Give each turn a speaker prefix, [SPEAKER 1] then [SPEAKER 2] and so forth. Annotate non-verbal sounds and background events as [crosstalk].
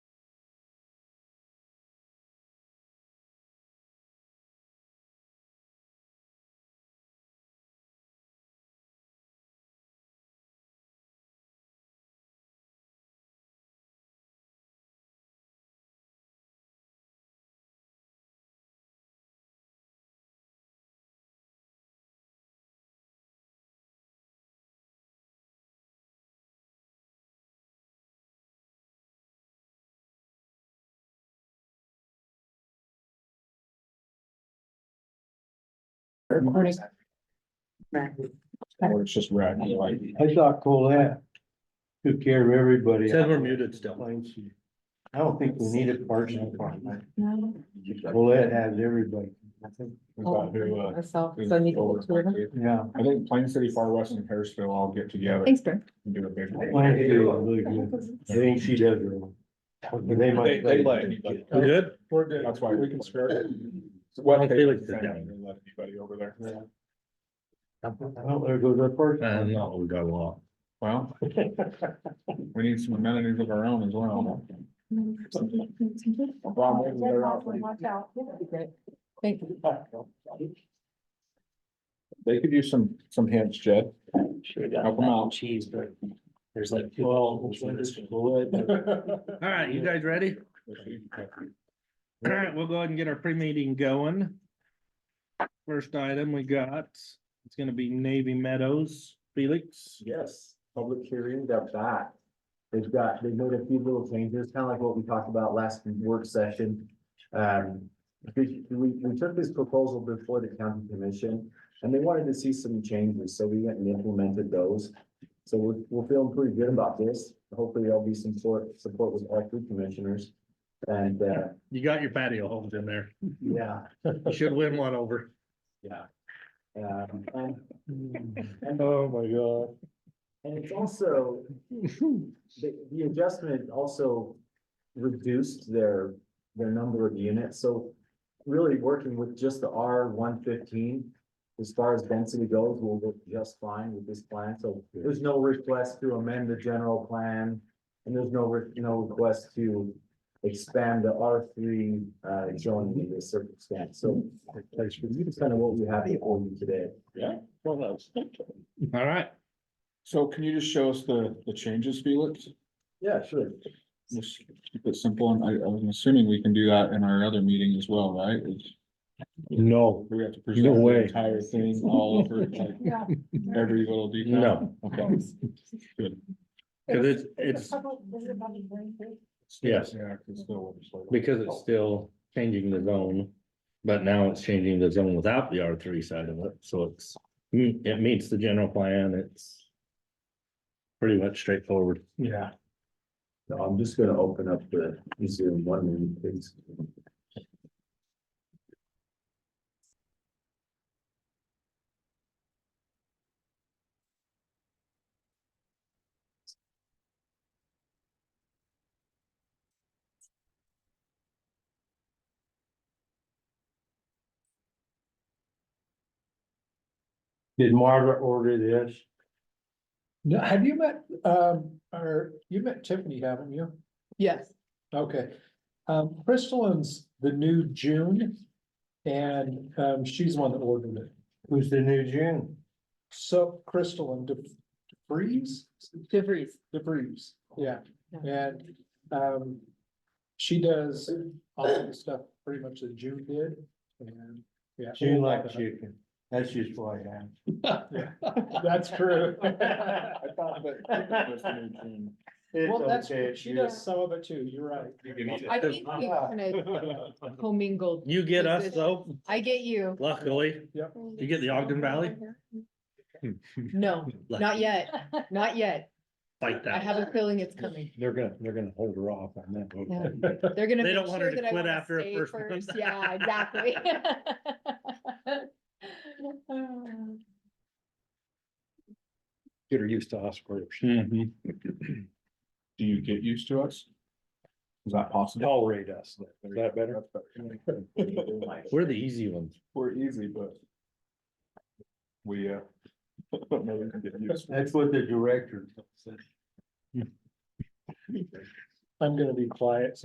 [SPEAKER 1] Recording.
[SPEAKER 2] Right.
[SPEAKER 1] Or it's just red, like.
[SPEAKER 3] I thought Colette took care of everybody.
[SPEAKER 4] Said we're muted still.
[SPEAKER 3] I don't think we need a personal department.
[SPEAKER 2] No.
[SPEAKER 3] Colette has everybody.
[SPEAKER 1] we've got to, uh,
[SPEAKER 2] Myself, so I need to look to them.
[SPEAKER 3] Yeah.
[SPEAKER 1] I think Plain City, Far West and Harrisville all get together
[SPEAKER 2] Thanks, Ben.
[SPEAKER 1] and do a big.
[SPEAKER 3] Plan to do it really good. I think she does. really. But They
[SPEAKER 1] They,
[SPEAKER 3] might.
[SPEAKER 1] they let anybody.
[SPEAKER 4] We good?
[SPEAKER 1] We're good. That's why we can spare. it. What
[SPEAKER 4] I
[SPEAKER 1] they
[SPEAKER 4] feel
[SPEAKER 1] let
[SPEAKER 4] like the devil.
[SPEAKER 1] anybody over there.
[SPEAKER 3] Well, there goes our
[SPEAKER 4] [laughs] Uh,
[SPEAKER 3] person.
[SPEAKER 4] no, we got a lot.
[SPEAKER 1] Well, we need some amenities of our own as well. Bob, maybe they're out.
[SPEAKER 2] Thank you.
[SPEAKER 1] They could use some, some hints, Jed.
[SPEAKER 5] Sure got
[SPEAKER 1] Help 'em
[SPEAKER 5] mac and
[SPEAKER 1] out.
[SPEAKER 5] cheese, but there's like twelve.
[SPEAKER 4] All right, you guys ready? All right, [clears throat] we'll go ahead and get our pre-meeting going. First item we got, it's gonna be Navy Meadows, Felix.
[SPEAKER 6] Yes, public hearing got that. They've got, they've made a few little changes, kind of like what we talked about last work session. Um, we, we we took this proposal before the county commission and they wanted to see some changes, so we went and implemented those. So we're, we're feeling pretty good about this. Hopefully there'll be some support, support with all three commissioners. And, uh,
[SPEAKER 4] You got your patio homes in there.
[SPEAKER 6] yeah,
[SPEAKER 4] You should win one over.
[SPEAKER 6] yeah. Um, and,
[SPEAKER 4] Oh, my God.
[SPEAKER 6] and it's also, The, the adjustment also reduced their, their number of units, so really working with just the R one fifteen. As far as density goes, will work just fine with this plan, so there's no request to amend the general plan. And there's no, re- no request to expand the R three, uh, zoning in this circumstance, so. That's kind of what we have before you today.
[SPEAKER 4] All right,
[SPEAKER 1] So can you just show us the, the changes, Felix?
[SPEAKER 6] Yeah, sure.
[SPEAKER 1] Just keep it simple, and I, I'm assuming we can do that in our other meeting as well, right? It's-
[SPEAKER 4] no,
[SPEAKER 1] We have to present the
[SPEAKER 4] way.
[SPEAKER 1] entire thing all
[SPEAKER 2] [laughs]
[SPEAKER 1] over, like, every little detail?
[SPEAKER 4] No.
[SPEAKER 1] Okay.
[SPEAKER 4] because it's, it's, Yes.
[SPEAKER 1] Yeah, 'cause they'll-
[SPEAKER 4] because it's still changing the zone. But now it's changing the zone without the R three side of it, so it's, mm, it meets the general plan, it's. Pretty much straightforward.
[SPEAKER 6] Yeah. So I'm just gonna open up the Zoom one minute, [laughs] please.
[SPEAKER 3] Did Margaret order this?
[SPEAKER 7] No, have you met, um, or you met Tiffany, haven't you?
[SPEAKER 2] Yes,
[SPEAKER 7] Okay. Um, Crystalline's the new June. And, um, she's the one that ordered it.
[SPEAKER 3] Who's the new June?
[SPEAKER 7] So Crystalline De- DeFreeze,
[SPEAKER 2] DeVries.
[SPEAKER 7] DeFreeze, yeah. And, um, she does all of the stuff pretty much that June did. And, yeah.
[SPEAKER 3] June like chicken. That's just what I am.
[SPEAKER 7] That's
[SPEAKER 3] [laughs]
[SPEAKER 7] true.
[SPEAKER 1] I thought that was the new June.
[SPEAKER 7] Well, that's, she does some of it too. You're right.
[SPEAKER 2] I think we kind of commingled.
[SPEAKER 4] You get us though,
[SPEAKER 2] I get you.
[SPEAKER 4] luckily,
[SPEAKER 7] Yep.
[SPEAKER 4] you get the Ogden Valley.
[SPEAKER 2] No, not yet, not yet.
[SPEAKER 4] Like
[SPEAKER 2] I
[SPEAKER 4] that.
[SPEAKER 2] have a
[SPEAKER 1] [laughs]
[SPEAKER 2] feeling it's coming.
[SPEAKER 3] They're gonna, they're gonna hold her off on that.
[SPEAKER 2] No. They're gonna.
[SPEAKER 4] They
[SPEAKER 2] make
[SPEAKER 4] don't want her
[SPEAKER 2] sure
[SPEAKER 4] to
[SPEAKER 2] that I
[SPEAKER 4] quit
[SPEAKER 2] wanna
[SPEAKER 4] after her
[SPEAKER 2] stay
[SPEAKER 4] first one.
[SPEAKER 2] first. Yeah, exactly.
[SPEAKER 4] [laughs]
[SPEAKER 2] [laughs]
[SPEAKER 3] Get her used to us first.
[SPEAKER 4] Mhm.
[SPEAKER 1] Mm-hmm. Do you get used to us? Is that possible?
[SPEAKER 3] Tolerate us. Is that better?
[SPEAKER 1] That's better.
[SPEAKER 4] We're the easy ones.
[SPEAKER 1] We're easy, but. We, uh. [laughs] maybe we can get used to it.
[SPEAKER 3] That's what the director said.
[SPEAKER 7] I'm gonna be quiet.